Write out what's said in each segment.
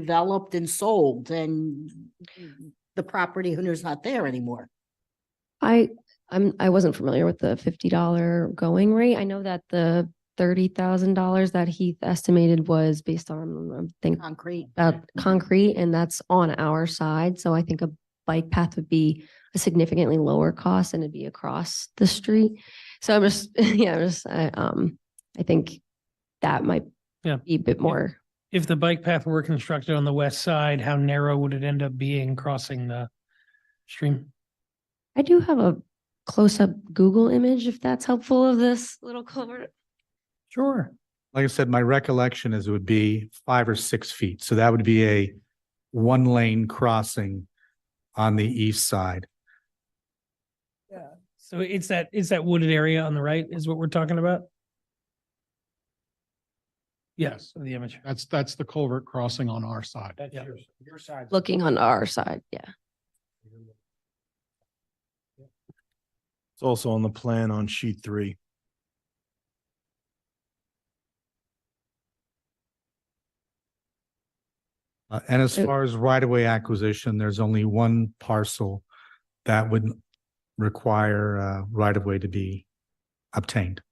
developed and sold and the property owner's not there anymore. I, I'm, I wasn't familiar with the fifty dollar going rate. I know that the thirty thousand dollars that Heath estimated was based on, I think, Concrete. about concrete and that's on our side. So I think a bike path would be a significantly lower cost and it'd be across the street. So I'm just, yeah, I'm just, I, um, I think that might Yeah. be a bit more. If the bike path were constructed on the west side, how narrow would it end up being crossing the stream? I do have a close-up Google image if that's helpful of this little culvert. Sure. Like I said, my recollection is it would be five or six feet. So that would be a one lane crossing on the east side. So it's that, it's that wooded area on the right is what we're talking about? Yes, the image. That's, that's the culvert crossing on our side. That's Yeah. yours. your side. Looking on our side, yeah. It's also on the plan on sheet three. Uh, And as Uh, far as right of way acquisition, there's only one parcel that would require uh right of way to be obtained.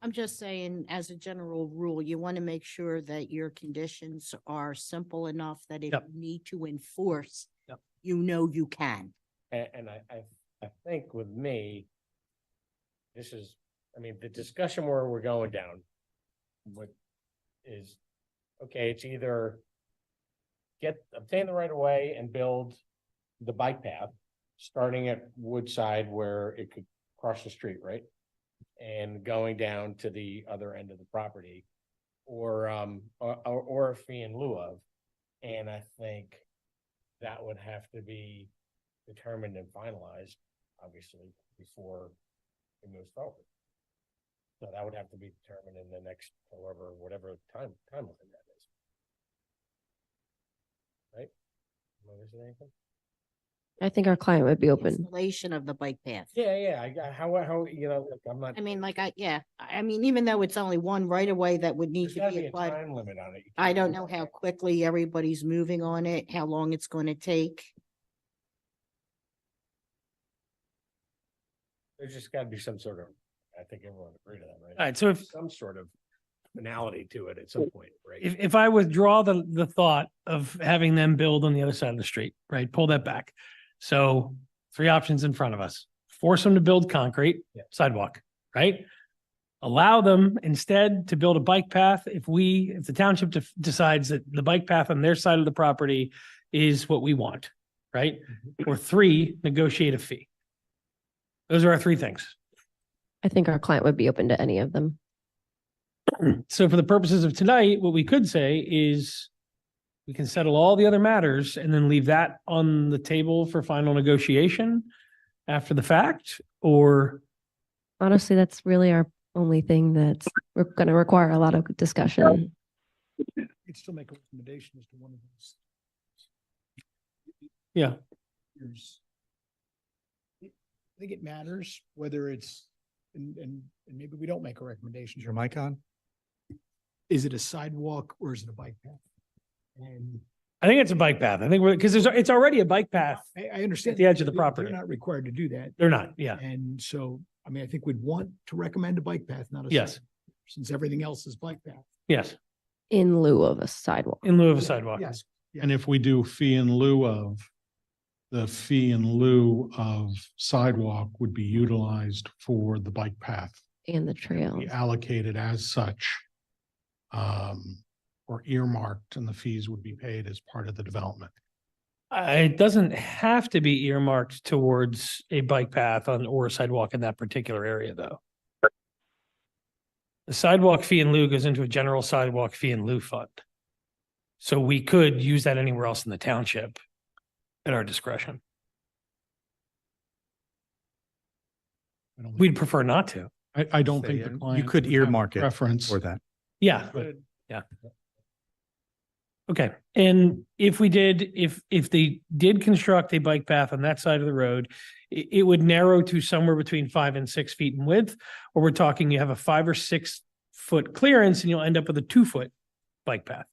I'm just saying, as a general rule, you want to make sure that your conditions are simple enough that if you Yep. need to enforce, Yep. you know you can. And, and I, I, I think with me, this is, I mean, the discussion where we're going down, what is, okay, it's either get, obtain the right of way and build the bike path, starting at Woodside where it could cross the street, right? And going down to the other end of the property, or, um, or, or- or a fee in lieu of. And I think that would have to be determined and finalized, obviously, before it moves forward. So that would have to be determined in the next, however, whatever time, timeline that is. Right? Am I missing anything? I think our client would be open. Installation of the bike path. Yeah, yeah, I, got- how, how, you know, look, I'm not. I mean, like I, yeah, I I mean, even though it's only one right away that would need There's to gotta be be a applied. time limit on it. You I can't don't do know that, how right? quickly everybody's moving on it, how long it's going to take. There's just gotta be some sort of, I think everyone agreed to that, All right? right, so if, Some sort of finality to it at some point, right? if, if I withdraw the, the thought of having them build on the other side of the street, right, pull that back. So three options in front of us, force them to build concrete Yeah. sidewalk, right? Allow them instead to build a bike path. If we, if the township def- decides that the bike path on their side of the property is what we want, right? Or three, negotiate a fee. Those are our three things. I think our client would be open to any of them. So for the purposes of tonight, what we could say is we can settle all the other matters and then leave that on the table for final negotiation after the fact, or Honestly, that's really our only thing that's we're gonna require a lot of discussion. You'd still make a recommendation as to one of those. Yeah. There's- I think it matters whether it's, and, and, and maybe we don't make a recommendation. Is your mic on? Is it a sidewalk or is it a bike path? And I think it's a bike path. I think we're, because there's, it's already a bike path. I, I understand. the edge of the they're- property. They're not required to do that. They're not, yeah. And so, I mean, I think we'd want to recommend a bike path, not a. Yes. sidewalk, Since everything else is bike path. Yes, In lieu of a sidewalk. in lieu of a sidewalk. Yes. And if we do fee in lieu of, the fee in lieu of sidewalk would be utilized for the bike path, And the trail. be Oh. allocated as such. Um, or earmarked and the fees would be paid as part of the development. Uh, It doesn't have to be earmarked towards a bike path on or a sidewalk in that particular area, though. The sidewalk fee in lieu goes into a general sidewalk fee in lieu fund. So we could use that anywhere else in the township at our discretion. I don't- We'd prefer not to. I, I don't Say, think uh, the you client. could would have a earmark it Preference. For that. Yeah, Good. yeah. Okay, and if we did, if, if they did construct a bike path on that side of the road, it, it would narrow to somewhere between five and six feet in width, or we're talking you have a five or six foot clearance and you'll end up with a two foot bike path.